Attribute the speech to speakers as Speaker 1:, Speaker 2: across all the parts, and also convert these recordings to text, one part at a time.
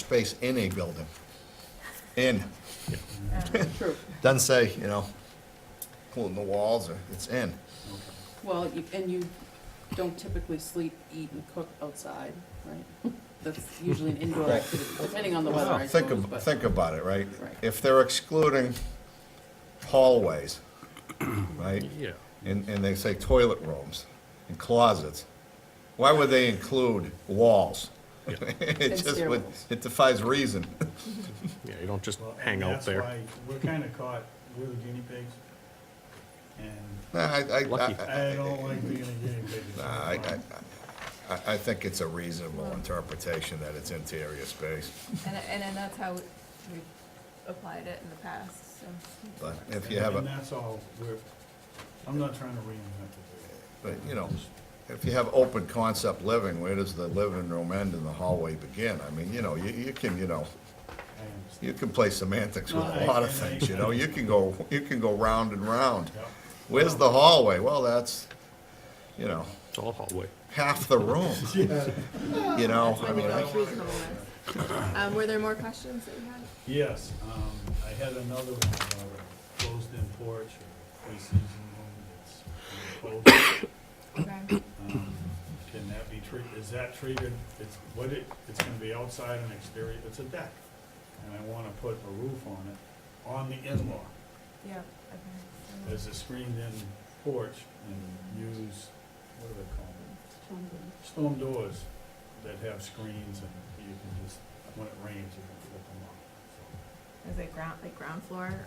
Speaker 1: space in a building. In,
Speaker 2: True.
Speaker 1: doesn't say, you know, including the walls, or, it's in.
Speaker 2: Well, you- and you don't typically sleep, eat, and cook outside, right? That's usually an indoor activity, depending on the weather, I
Speaker 1: Think,
Speaker 2: suppose,
Speaker 1: ab-
Speaker 2: but.
Speaker 1: think about it, right?
Speaker 2: Right.
Speaker 1: If they're excluding hallways, right?
Speaker 3: Yeah.
Speaker 1: And, and they say toilet rooms and closets, why would they include walls? It
Speaker 2: And
Speaker 1: just would,
Speaker 2: stairwells.
Speaker 1: it defies reason.
Speaker 3: Yeah, you don't just
Speaker 4: Well, and
Speaker 3: hang out there.
Speaker 4: That's why we're kind of caught, we're the guinea pigs. And
Speaker 1: Nah, I, I-
Speaker 3: Lucky.
Speaker 1: I-
Speaker 4: I don't like being a guinea pig.
Speaker 1: Nah, I, I- I, I think it's a reasonable interpretation that it's interior space,
Speaker 5: And, and then that's how we've applied it in the past, so.
Speaker 1: but if you have
Speaker 4: And
Speaker 1: a,
Speaker 4: that's all, we're, I'm not trying to reinvent
Speaker 1: but, you know, if you have open concept living, where does the living room end and the hallway begin? I mean, you know, you, you can, you know,
Speaker 4: the wheel.
Speaker 1: you can play semantics with
Speaker 4: No,
Speaker 1: a
Speaker 4: I-
Speaker 1: lot of
Speaker 4: and I-
Speaker 1: things, you know, you can go, you can go round and round.
Speaker 4: I understand.
Speaker 1: Where's the hallway? Well, that's, you know,
Speaker 3: It's all hallway.
Speaker 1: half the room, you know,
Speaker 5: That's
Speaker 1: I
Speaker 5: when you
Speaker 1: mean,
Speaker 5: go
Speaker 1: I-
Speaker 5: with reasonableness. Um, were there more questions that you had?
Speaker 4: Yes, um, I had another one about a closed-in porch or pre-season room that's closed.
Speaker 5: Okay.
Speaker 4: Um, Can that be treated, is that treated, it's, what it, it's gonna be outside and exterior, it's a deck. And I wanna put a roof on it, on the in-law,
Speaker 5: Yeah. okay.
Speaker 4: as a screened-in porch and use, what do they call them? Storm doors that have screens and you can just, when it rains, you can flip them off.
Speaker 5: Is it ground, like ground floor, or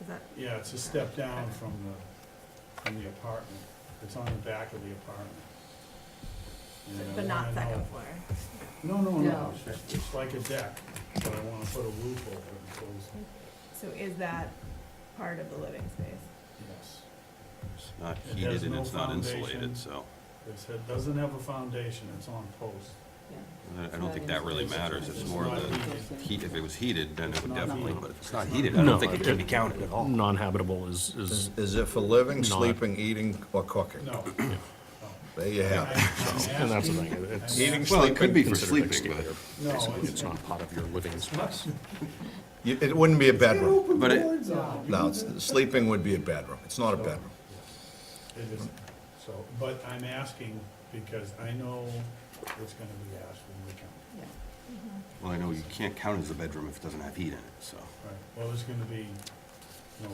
Speaker 5: is that,
Speaker 4: So, Yeah, it's a step down from the, from the apartment, it's on the back of the apartment. And I
Speaker 5: but
Speaker 4: wanna
Speaker 5: not
Speaker 4: know-
Speaker 5: second floor?
Speaker 4: No, no,
Speaker 2: No.
Speaker 4: no, it's just- it's like a deck, but I wanna put a roof over it, so it's,
Speaker 5: So is that part of the living space?
Speaker 4: yes.
Speaker 6: It's not
Speaker 4: It has
Speaker 6: heated and
Speaker 4: no
Speaker 6: it's not
Speaker 4: foundation.
Speaker 6: insulated, so
Speaker 4: It's, it doesn't have a foundation, it's on posts.
Speaker 6: I- I don't think that really matters. It's more of the heat, if it was heated, then it would definitely, but if it's not heated, I
Speaker 3: No,
Speaker 6: don't think it can be counted at all.
Speaker 3: Non-habitable is, is,
Speaker 1: is is it for living,
Speaker 3: Not-
Speaker 1: sleeping, eating, or cooking?
Speaker 4: No.
Speaker 1: There you have it.
Speaker 3: and that's the thing. It's
Speaker 1: Eating,
Speaker 6: Well, it
Speaker 1: sleeping,
Speaker 6: could be for
Speaker 3: considered
Speaker 6: sleeping,
Speaker 3: exterior.
Speaker 4: No,
Speaker 3: Basically,
Speaker 4: it's-
Speaker 3: It's not part of your living space.
Speaker 1: you- it wouldn't be a bedroom.
Speaker 6: but, but it,
Speaker 1: No, it's, sleeping would be a bedroom. It's not a bedroom.
Speaker 4: It isn't, so, but I'm asking because I know it's gonna be asked when we come,
Speaker 2: Yeah.
Speaker 5: Mm-hmm.
Speaker 6: well, I know you can't count it as a bedroom if it doesn't have heat in it, so.
Speaker 4: right? Well, there's gonna be, no.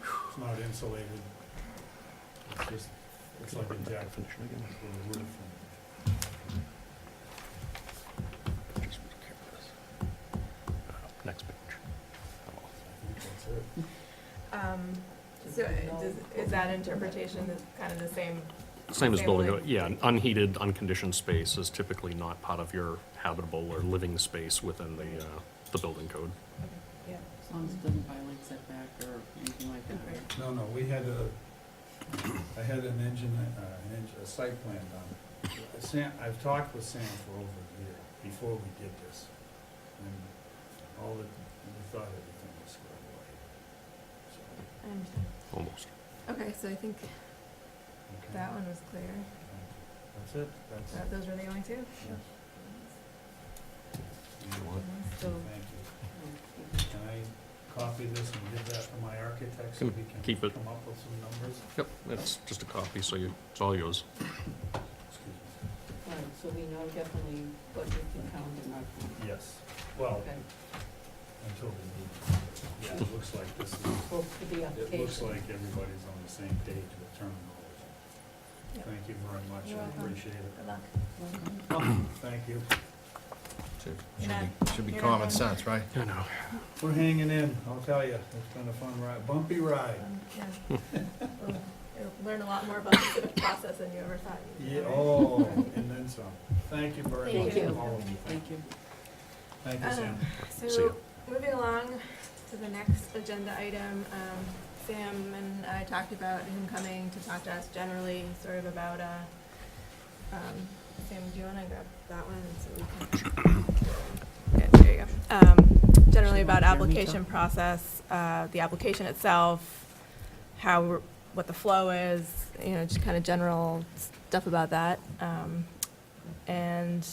Speaker 4: It's not insulated, it's just, it's like a deck with a roof. and-
Speaker 3: Uh, Next page.
Speaker 4: I think that's it.
Speaker 5: Um, so does, is that interpretation is kind of the same?
Speaker 3: Same as
Speaker 5: Same
Speaker 3: building,
Speaker 5: way.
Speaker 3: yeah, an unheated, unconditioned space is typically not part of your habitable or living space within the, uh, the building code.
Speaker 5: Yeah.
Speaker 2: As long as it doesn't violate setback or anything like that, right?
Speaker 4: No, no, we had a, I had an engine, uh, an engine, a site plan done. Sam, I've talked with Sam for over a year, before we did this. And all the, we thought everything was squared away. So,
Speaker 5: I understand.
Speaker 3: Almost.
Speaker 5: Okay, so I think
Speaker 4: okay.
Speaker 5: that one was clear.
Speaker 4: That's it, that's,
Speaker 5: That- Those were the only two?
Speaker 4: yes.
Speaker 5: So
Speaker 4: Thank
Speaker 2: um,
Speaker 4: you. Can I copy this and give that to my architect
Speaker 3: Can
Speaker 4: so we can
Speaker 3: keep it.
Speaker 4: come up with some numbers?
Speaker 3: Yep, it's just a copy, so you, it's all yours.
Speaker 4: Excuse me.
Speaker 2: Right, so we know definitely what we can count and not count.
Speaker 4: Yes, well,
Speaker 2: Okay,
Speaker 4: until we, yeah, it looks like this is.
Speaker 2: well, for the
Speaker 4: It looks
Speaker 2: application.
Speaker 4: like everybody's on the same page with terminology.
Speaker 5: Yep.
Speaker 4: Thank you very much,
Speaker 5: You're
Speaker 4: I
Speaker 5: welcome.
Speaker 4: appreciate
Speaker 5: good luck.
Speaker 2: Welcome.
Speaker 4: it. Thank you.
Speaker 1: Should should
Speaker 5: You're not-
Speaker 1: be, should be
Speaker 5: you're not
Speaker 1: common
Speaker 5: going-
Speaker 1: sense, right?
Speaker 3: I know.
Speaker 4: We're hanging in, I'll tell you, it's been a fun ride, bumpy ride.
Speaker 5: Um, yeah. We'll- you'll Learn a lot more about the civic process than you ever thought you
Speaker 4: Yeah,
Speaker 5: would.
Speaker 4: oh, and then some. Thank you very much.
Speaker 2: Thank you.
Speaker 4: all of you.
Speaker 2: Thank you. Uh-huh.
Speaker 4: Thank you, Sam.
Speaker 3: See ya.
Speaker 5: Um, So, moving along to the next agenda item, um, Sam and I talked about him coming to talk to us generally, sort of about, uh, um, Sam, do you wanna grab that one so we can? Yeah, there you go. Um, generally about application process, uh, the application itself, how, we're- what the flow is, you know, just kinda general stuff about that. Um, and